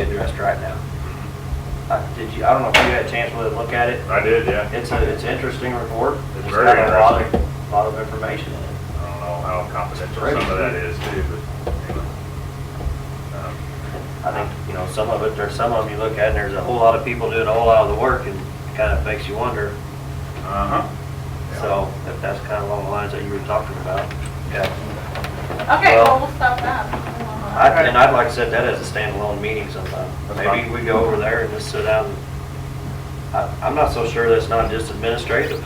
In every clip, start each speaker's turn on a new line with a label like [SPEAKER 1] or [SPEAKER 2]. [SPEAKER 1] addressed right now. Uh, Did you, I don't know if you had a chance to really look at it.
[SPEAKER 2] I did, yeah.
[SPEAKER 1] It's a, it's an interesting report.
[SPEAKER 2] It's
[SPEAKER 1] It's
[SPEAKER 2] very
[SPEAKER 1] got a lot of, lot of information in it.
[SPEAKER 2] I don't know how confidential some of that is too, but. anyway. Um,
[SPEAKER 1] I think, you know, some of it, there's some of them you look at and there's a whole lot of people doing a whole lot of the work and it kind of makes you wonder.
[SPEAKER 2] Uh-huh.
[SPEAKER 1] So if that's kind of along the lines that you were talking about. Yeah.
[SPEAKER 3] Okay,
[SPEAKER 1] Well-
[SPEAKER 3] well, we'll stop that.
[SPEAKER 1] I- And I'd like to set that as a standalone meeting sometime.
[SPEAKER 2] That's fine.
[SPEAKER 1] Maybe we go over there and just sit down. and- I, I'm not so sure that's not just administrative.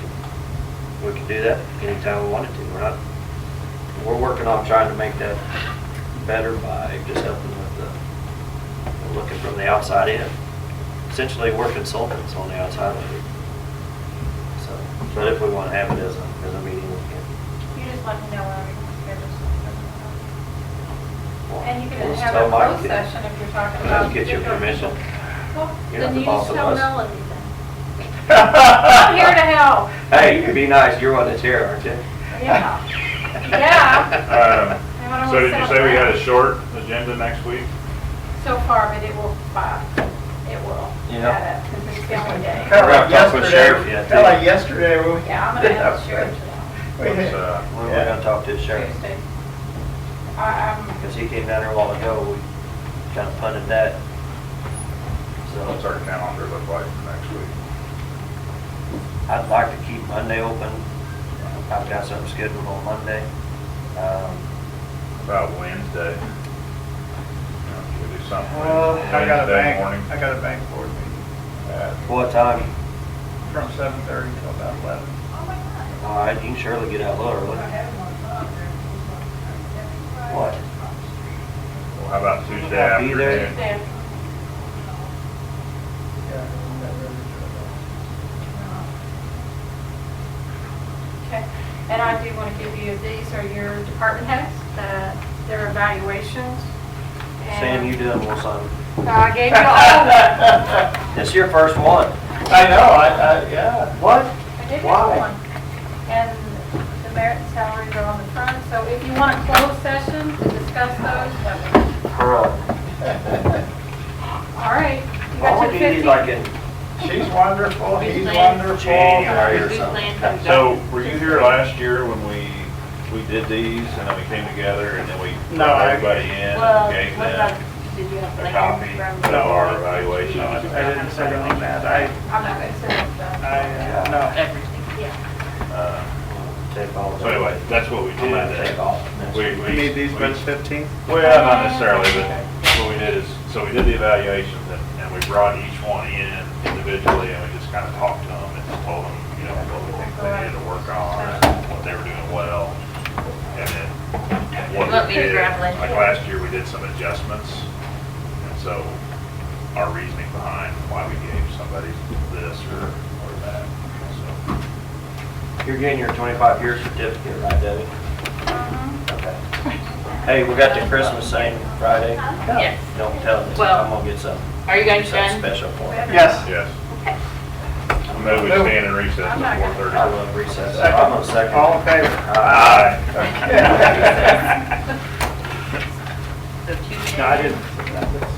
[SPEAKER 1] We could do that anytime we wanted to. We're not, we're working on trying to make that better by just helping with the, looking from the outside in. Essentially, we're consultants on the outside of it. So, but if we want to have it as a, as a meeting, we can.
[SPEAKER 3] You just let me know when we can schedule something.
[SPEAKER 1] we'll-
[SPEAKER 3] And you can
[SPEAKER 1] we'll
[SPEAKER 3] have
[SPEAKER 1] tell
[SPEAKER 3] a
[SPEAKER 1] Mike
[SPEAKER 3] closed
[SPEAKER 1] that-
[SPEAKER 3] session if you're talking
[SPEAKER 1] Let's
[SPEAKER 3] about.
[SPEAKER 1] Get your
[SPEAKER 3] different-
[SPEAKER 1] permission.
[SPEAKER 3] Well,
[SPEAKER 1] You're not
[SPEAKER 3] Then
[SPEAKER 1] the
[SPEAKER 3] you
[SPEAKER 1] boss
[SPEAKER 3] just
[SPEAKER 1] of
[SPEAKER 3] tell
[SPEAKER 1] us.
[SPEAKER 3] Melody then. I'm here to help.
[SPEAKER 1] Hey, be nice, you're on the chair, aren't you?
[SPEAKER 3] Yeah. Yeah.
[SPEAKER 2] Um,
[SPEAKER 3] I wanna
[SPEAKER 2] So did you
[SPEAKER 3] settle
[SPEAKER 2] say we
[SPEAKER 3] down.
[SPEAKER 2] had a short agenda next week?
[SPEAKER 3] So far, but it will, uh, it will.
[SPEAKER 1] Yeah.
[SPEAKER 3] add up, 'cause it's the only day.
[SPEAKER 1] We're gonna talk with sheriff yet,
[SPEAKER 4] Kind of like
[SPEAKER 1] too.
[SPEAKER 4] yesterday, we,
[SPEAKER 3] Yeah, I'm gonna have to share it
[SPEAKER 2] What's, uh,
[SPEAKER 1] We're
[SPEAKER 4] Yeah.
[SPEAKER 1] gonna talk to the sheriff,
[SPEAKER 3] Tuesday. I, um, I'm,
[SPEAKER 1] because he came down here a while ago, we kind of punted that.
[SPEAKER 2] what's
[SPEAKER 1] So
[SPEAKER 2] our calendar look like for next week?
[SPEAKER 1] I'd like to keep Monday open. I've got something scheduled on Monday. Um,
[SPEAKER 2] About Wednesday. Yeah, Should we do something
[SPEAKER 4] well, I got a
[SPEAKER 2] Wednesday
[SPEAKER 4] bank,
[SPEAKER 2] morning?
[SPEAKER 4] I got a bank board meeting uh,
[SPEAKER 1] What time?
[SPEAKER 4] from seven thirty till about eleven.
[SPEAKER 3] oh my God.
[SPEAKER 1] All right, Uh, you can surely get out a little early. What?
[SPEAKER 2] Well, how about Tuesday
[SPEAKER 1] I'll be there.
[SPEAKER 2] afternoon?
[SPEAKER 3] Tuesday. Okay, and I do want to give you, these are your department heads, the- their evaluations.
[SPEAKER 1] Sam,
[SPEAKER 3] and-
[SPEAKER 1] you done, we'll sign.
[SPEAKER 3] No, I gave you all of them.
[SPEAKER 4] I
[SPEAKER 1] This is your first one.
[SPEAKER 4] know, I, I, yeah.
[SPEAKER 1] What?
[SPEAKER 3] I did
[SPEAKER 1] Why?
[SPEAKER 3] have one. And the merit and salaries are on the front, so if you want a closed session to discuss those, that would-
[SPEAKER 1] Bruh.
[SPEAKER 3] all right. You
[SPEAKER 1] Why
[SPEAKER 3] got
[SPEAKER 1] would
[SPEAKER 3] your
[SPEAKER 1] you need
[SPEAKER 3] 50.
[SPEAKER 1] like in
[SPEAKER 4] She's wonderful, he's
[SPEAKER 5] Land.
[SPEAKER 4] wonderful.
[SPEAKER 1] January or something?
[SPEAKER 2] So were you here last year when we, we did these and then we came together and then we
[SPEAKER 4] No,
[SPEAKER 2] brought
[SPEAKER 4] I-
[SPEAKER 2] everybody in
[SPEAKER 5] Well,
[SPEAKER 2] and gave
[SPEAKER 5] what about,
[SPEAKER 2] them
[SPEAKER 5] did you have
[SPEAKER 2] a
[SPEAKER 5] plans
[SPEAKER 2] copy
[SPEAKER 5] from?
[SPEAKER 2] of our evaluation?
[SPEAKER 4] I didn't say anything bad, I,
[SPEAKER 3] I'm not going to say that.
[SPEAKER 4] I, uh, no.
[SPEAKER 5] Everything, yeah.
[SPEAKER 2] Uh,
[SPEAKER 1] Take all of
[SPEAKER 2] So
[SPEAKER 1] them.
[SPEAKER 2] anyway, that's what we
[SPEAKER 1] I'm gonna
[SPEAKER 2] did.
[SPEAKER 1] take all of them.
[SPEAKER 2] We, we.
[SPEAKER 4] You need these
[SPEAKER 2] we-
[SPEAKER 4] by the fifteenth?
[SPEAKER 2] Well, not necessarily, but what we did is, so we did the evaluations and, and we brought each one in individually and we just kind of talked to them and just told them, you know, what we think they needed to work on and what they were doing well. And then what
[SPEAKER 5] What
[SPEAKER 2] we did,
[SPEAKER 5] we were grappling
[SPEAKER 2] like
[SPEAKER 5] with.
[SPEAKER 2] last year, we did some adjustments. And so our reasoning behind why we gave somebody this or, or that, so.
[SPEAKER 1] You're getting your twenty-five year certificate, right, Debbie?
[SPEAKER 3] Mhm.
[SPEAKER 5] Uh-huh.
[SPEAKER 1] Okay. Hey, we got the Christmas thing Friday.
[SPEAKER 5] Yes.
[SPEAKER 1] Don't tell them,
[SPEAKER 5] Well-
[SPEAKER 1] I'm gonna get some,
[SPEAKER 5] Are you guys
[SPEAKER 1] something
[SPEAKER 5] done?
[SPEAKER 1] special for them.
[SPEAKER 4] Yes.
[SPEAKER 2] Yes. I move we stand in recess
[SPEAKER 3] I'm
[SPEAKER 2] at
[SPEAKER 3] not gonna-
[SPEAKER 2] four thirty.
[SPEAKER 1] I love recess, I'm gonna second.
[SPEAKER 4] All in favor?
[SPEAKER 1] Uh,
[SPEAKER 2] Aye.
[SPEAKER 5] So Tuesday.
[SPEAKER 4] No, I didn't.